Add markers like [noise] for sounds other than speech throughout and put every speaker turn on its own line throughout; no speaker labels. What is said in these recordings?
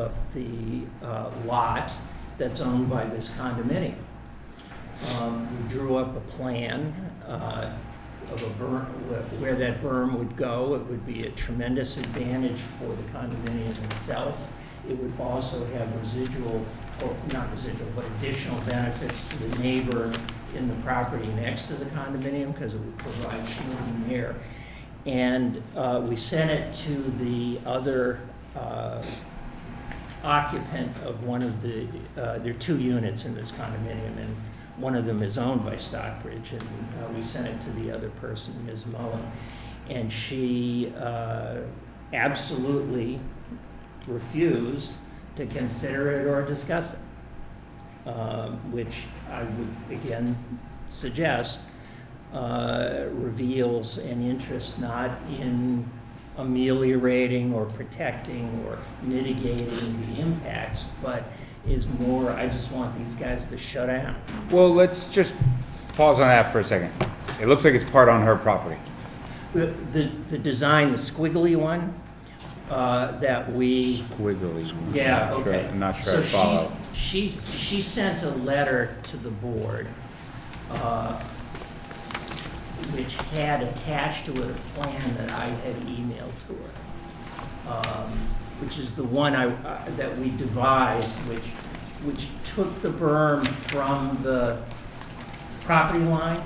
of the uh, lot that's owned by this condominium. Um, We drew up a plan uh, of a berm, where- where that berm would go. It would be a tremendous advantage for the condominium itself. It would also have residual, or not residual, but additional benefits for the neighbor in the property next to the condominium because it would provide shielding there. And uh, we sent it to the other uh, occupant of one of the, uh, there are two units in this condominium, and one of them is owned by Stockbridge, and uh, we sent it to the other person, Ms. Mullen. And she uh, absolutely refused to consider it or discuss it, Um, which I would again suggest uh, reveals an interest not in ameliorating or protecting or mitigating the impacts, but is more, I just want these guys to shut down.
Well, let's just pause on that for a second. It looks like it's part on her property.
The, the- the design, the squiggly one, uh, that we,
Squiggly.
yeah,
Not sure-
okay.
I'm not sure
So
I
she-
follow.
She, she sent a letter to the board, uh, which had attached to it a plan that I had emailed to her. um, which is the one I, I- that we devised, which, which took the berm from the property line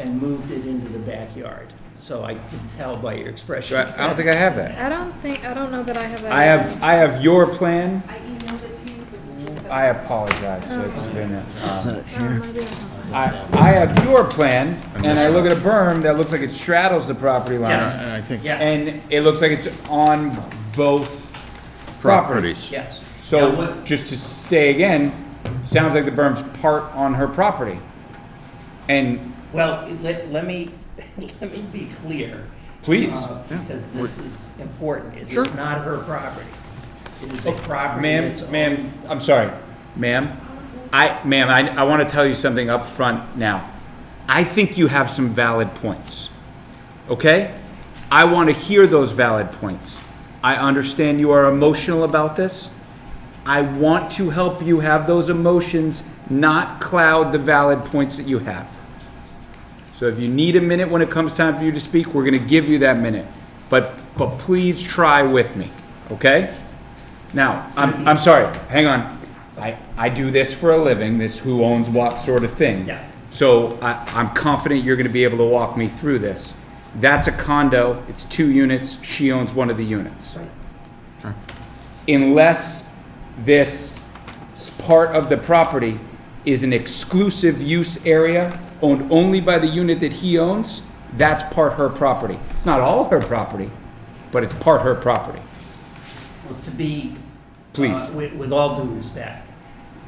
and moved it into the backyard. So I can tell by your expression.
So I I don't think I have that.
I don't think, I don't know that I have that.
I have, I have your plan.
I emailed it to you, but it's just that-
I apologize. So it's been, uh,
Um, I do have-
I, I have your plan and I look at a berm that looks like it straddles the property line.
Yes.
And I think
Yeah,
Uh, And it looks like it's on both properties.
properties.
yes. Now,
So
what-
just to say again, sounds like the berm's part on her property. And
Well, let, let me, [laughs] let me be clear.
Please.
uh, Because this is important. It
Sure. Oh,
is not her property. It is a property
Ma'am,
that's.
ma'am, I'm sorry, ma'am. I, ma'am, I, I want to tell you something up front now. I think you have some valid points, okay? I want to hear those valid points. I understand you are emotional about this. I want to help you have those emotions not cloud the valid points that you have. So if you need a minute when it comes time for you to speak, we're going to give you that minute. But, but please try with me, okay? Now, I'm, I'm sorry, hang on. I, I do this for a living, this who owns what sort of thing.
Yeah.
So I, I'm confident you're gonna be able to walk me through this. That's a condo, it's two units, she owns one of the units.
Right.
Unless this s- part of the property is an exclusive use area owned only by the unit that he owns, that's part her property. It's not all her property, but it's part her property.
Well, To be.
Please.
uh, With, with all due respect,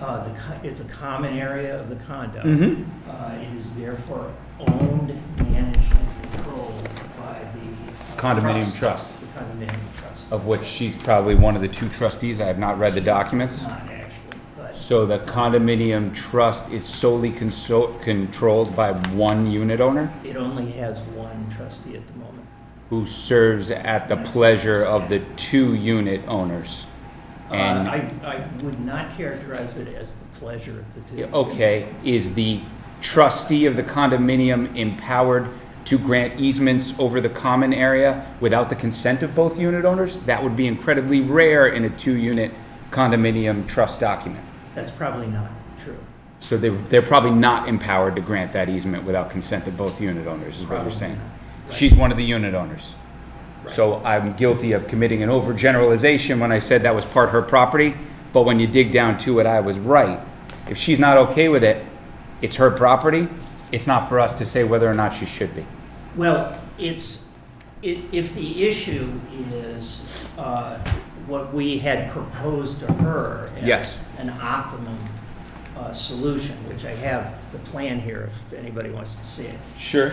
uh, the, co- it's a common area of the condo.
Mhm.
Uh, it is therefore owned, managed, and controlled by the. uh,
Condominium trust.
The condominium trust.
of which she's probably one of the two trustees. I have not read the documents.
Not actually, but,
So the condominium trust is solely consol- controlled by one unit owner
it only has one trustee at the moment.
who serves at the pleasure of the two unit owners.
Uh,
And,
I, I would not characterize it as the pleasure of the two.
okay, is the trustee of the condominium empowered to grant easements over the common area without the consent of both unit owners? That would be incredibly rare in a two unit condominium trust document.
That's probably not true.
So they, they're probably not empowered to grant that easement without consent of both unit owners, is what you're
Probably
saying.
not.
She's one of the unit owners. So I'm guilty of committing an overgeneralization when I said that was part her property, but when you dig down to it, I was right. If she's not okay with it, it's her property, it's not for us to say whether or not she should be.
Well, it's, i- if the issue is uh, what we had proposed to her
Yes.
as an optimum uh, solution, which I have the plan here if anybody wants to see it.
Sure.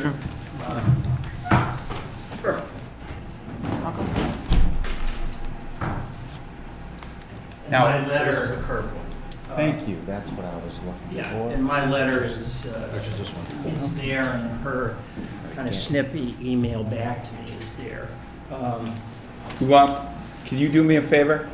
Sure.
Now-
My letter. uh,
Thank you, that's what I was looking
Yeah,
for.
and my letter is, uh, is there, and her kind of snippy email back to me is there. Um,
You want, can you do me a favor?